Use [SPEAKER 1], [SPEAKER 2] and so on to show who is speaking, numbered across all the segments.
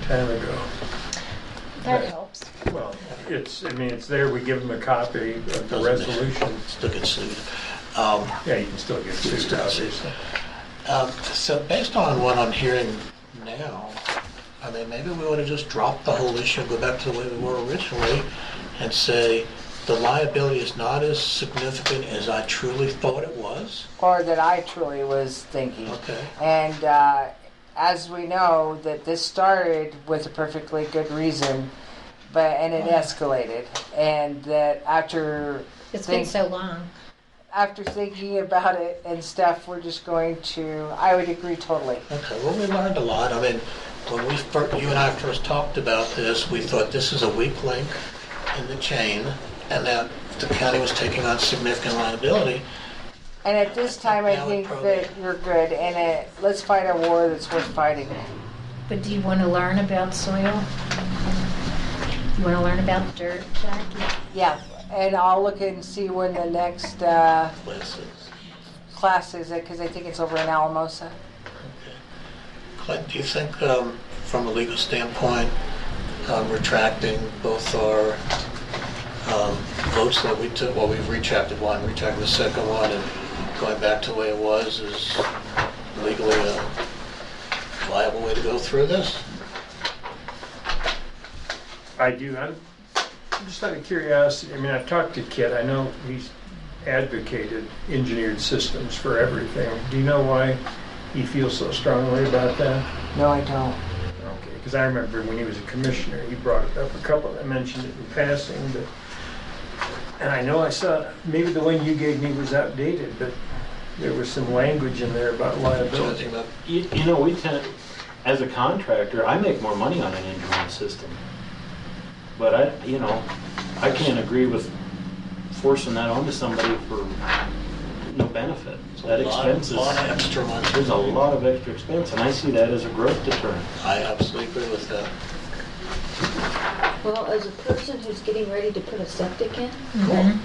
[SPEAKER 1] time ago.
[SPEAKER 2] That
[SPEAKER 1] Right.
[SPEAKER 2] helps.
[SPEAKER 1] Well, it's, I mean, it's there, we give them a copy of the resolution.
[SPEAKER 3] Still get sued. Um,
[SPEAKER 1] Yeah, you can still get sued, obviously.
[SPEAKER 3] um, So based on what I'm hearing now, I mean, maybe we ought to just drop the whole issue, and go back to the way we were originally, and say, the liability is not as significant as I truly thought it was.
[SPEAKER 4] or that I truly was thinking.
[SPEAKER 3] Okay.
[SPEAKER 4] And uh, as we know, that this started with a perfectly good reason, but and it escalated, and that after
[SPEAKER 2] It's been
[SPEAKER 4] think-
[SPEAKER 2] so long.
[SPEAKER 4] after thinking about it and stuff, we're just going to. I would agree totally.
[SPEAKER 3] Okay, well, we learned a lot. I mean, when we, fir- you and I first talked about this, we thought this is a weak link in the chain, and that the county was taking on significant liability.
[SPEAKER 4] And at this time, I
[SPEAKER 3] Valid
[SPEAKER 4] think that
[SPEAKER 3] program.
[SPEAKER 4] you're good, and it, let's fight a war that's worth fighting.
[SPEAKER 2] But do you want to learn about soil? You want to learn about dirt, Jackie?
[SPEAKER 4] Yeah, and I'll look and see when the next uh,
[SPEAKER 3] Let's-
[SPEAKER 4] class is, because I think it's over in Alamosa.
[SPEAKER 3] Clint, do you think, um, from a legal standpoint, um, retracting both our um, votes that we took, well, we've retracted one, retracted the second one, and going back to the way it was is legally a viable way to go through this?
[SPEAKER 1] I do. I'm just out of curiosity. I mean, I've talked to Kit. I know he's advocated engineered systems for everything. Do you know why he feels so strongly about that?
[SPEAKER 4] No, I don't.
[SPEAKER 1] Okay, because I remember when he was a commissioner, he brought it up a couple. I mentioned it in passing, but and I know I saw maybe the one you gave me was outdated, but there was some language in there about liability.
[SPEAKER 3] Something about
[SPEAKER 5] You, you know, we tend, as a contractor, I make more money on an engineering system. But I, you know, I can't agree with forcing that onto somebody for no benefit. That
[SPEAKER 3] A lot-
[SPEAKER 5] expense
[SPEAKER 3] lot of
[SPEAKER 5] is,
[SPEAKER 3] extra money.
[SPEAKER 5] there's a lot of extra expense, and I see that as a growth deterrent.
[SPEAKER 3] I absolutely agree with that.
[SPEAKER 6] Well, as a person who's getting ready to put a septic in,
[SPEAKER 2] Mhm.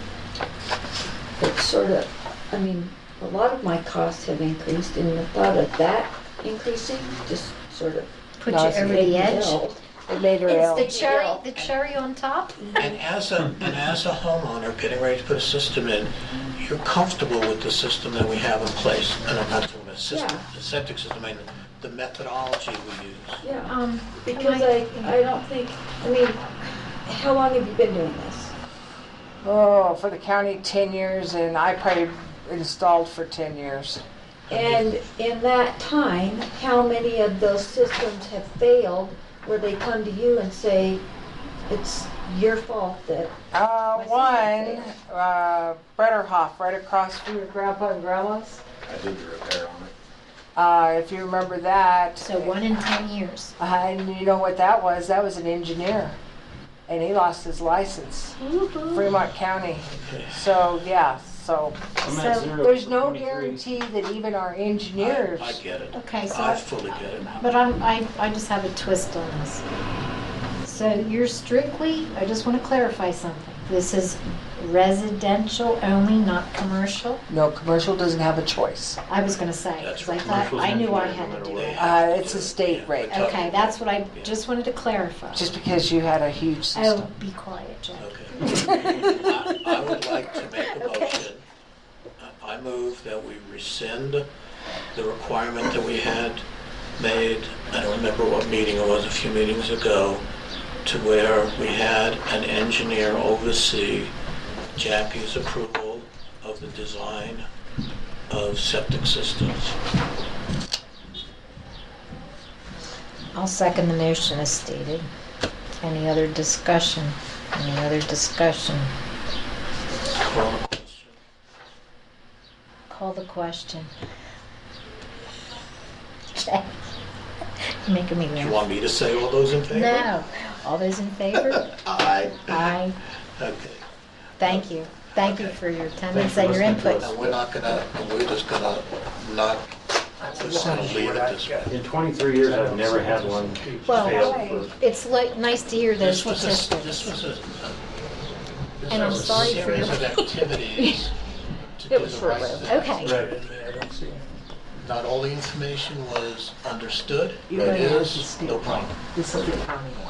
[SPEAKER 6] it's sort of, I mean, a lot of my costs have increased and the thought of that increasing just sort of.
[SPEAKER 2] Put
[SPEAKER 4] No,
[SPEAKER 2] you
[SPEAKER 4] it's
[SPEAKER 2] over
[SPEAKER 6] made me
[SPEAKER 2] the edge.
[SPEAKER 6] ill.
[SPEAKER 4] It made her ill.
[SPEAKER 2] It's the cherry, the cherry on top.
[SPEAKER 3] And as a, and as a homeowner getting ready to put a system in, you're comfortable with the system that we have in place. And I'm not talking about system,
[SPEAKER 6] Yeah.
[SPEAKER 3] the septic system, I mean, the methodology we use.
[SPEAKER 6] Yeah,
[SPEAKER 2] Um,
[SPEAKER 6] Oh, because I, I don't think, I mean, how long have you been doing this?
[SPEAKER 4] Oh, for the county, 10 years, and I probably installed for 10 years.
[SPEAKER 6] And in that time, how many of those systems have failed where they come to you and say, it's your fault that,
[SPEAKER 4] Uh,
[SPEAKER 6] sister
[SPEAKER 4] one, uh, Bretterhoff, right across from your grandpa and grandma's.
[SPEAKER 5] I did the repair on it.
[SPEAKER 4] Uh, if you remember that.
[SPEAKER 2] So one in 10 years.
[SPEAKER 4] Uh, and you know what that was? That was an engineer. And he lost his license. Fremont County. So, yeah, so
[SPEAKER 5] I'm at
[SPEAKER 2] So
[SPEAKER 5] zero
[SPEAKER 4] there's
[SPEAKER 5] for
[SPEAKER 4] no
[SPEAKER 5] 23.
[SPEAKER 4] guarantee that even our
[SPEAKER 3] I-
[SPEAKER 4] engineers.
[SPEAKER 3] I get it.
[SPEAKER 2] Okay, so
[SPEAKER 3] I
[SPEAKER 2] I-
[SPEAKER 3] fully get it.
[SPEAKER 2] But I'm, I, I just have a twist on this. So you're strictly, I just want to clarify something. This is residential only, not commercial?
[SPEAKER 4] No, commercial doesn't have a choice.
[SPEAKER 2] I was going to say,
[SPEAKER 3] That's
[SPEAKER 2] because I
[SPEAKER 3] right.
[SPEAKER 2] thought, I knew I had to do
[SPEAKER 3] They
[SPEAKER 2] that.
[SPEAKER 3] have
[SPEAKER 4] Uh,
[SPEAKER 3] to
[SPEAKER 4] it's
[SPEAKER 3] do
[SPEAKER 4] a
[SPEAKER 3] it.
[SPEAKER 4] state
[SPEAKER 3] Yeah,
[SPEAKER 4] rate.
[SPEAKER 3] we're talking-
[SPEAKER 2] Okay, that's what I just wanted to clarify.
[SPEAKER 4] Just because you had a huge
[SPEAKER 2] Oh,
[SPEAKER 4] system.
[SPEAKER 2] be quiet, Jack.
[SPEAKER 3] Okay. I I would like to make a motion. I move that we rescind the requirement that we had made, I don't remember what meeting it was, a few meetings ago, to where we had an engineer oversee Jackie's approval of the design of septic systems.
[SPEAKER 2] I'll second the motion as stated. Any other discussion? Any other discussion?
[SPEAKER 3] Call the question.
[SPEAKER 2] Call the question. Jack, you're making me
[SPEAKER 3] Do you
[SPEAKER 2] laugh.
[SPEAKER 3] want me to say all those in favor?
[SPEAKER 2] No. All those in favor?
[SPEAKER 3] Aye.
[SPEAKER 2] Aye.
[SPEAKER 3] Okay.
[SPEAKER 2] Thank you. Thank you
[SPEAKER 3] Okay.
[SPEAKER 2] for your attendance
[SPEAKER 5] Thanks for
[SPEAKER 2] and your
[SPEAKER 5] listening to
[SPEAKER 2] input.
[SPEAKER 5] us.
[SPEAKER 3] And we're not gonna, and we're just gonna not, we're just gonna leave it at this.
[SPEAKER 5] In 23 years, I've never had one
[SPEAKER 2] Well,
[SPEAKER 5] fail for,
[SPEAKER 2] It's li- nice to hear those
[SPEAKER 3] This was a, this
[SPEAKER 2] statistics.
[SPEAKER 3] was a, a- this
[SPEAKER 2] And I'm
[SPEAKER 3] was a
[SPEAKER 2] sorry for
[SPEAKER 3] series
[SPEAKER 2] your-
[SPEAKER 3] of activities to do the right thing.
[SPEAKER 6] short-lived.
[SPEAKER 2] Okay.
[SPEAKER 1] I don't see.
[SPEAKER 3] not all the information was understood,
[SPEAKER 4] You
[SPEAKER 3] but
[SPEAKER 4] don't
[SPEAKER 3] it
[SPEAKER 4] have to
[SPEAKER 3] is,
[SPEAKER 4] state
[SPEAKER 3] no problem.
[SPEAKER 4] This will be a county one.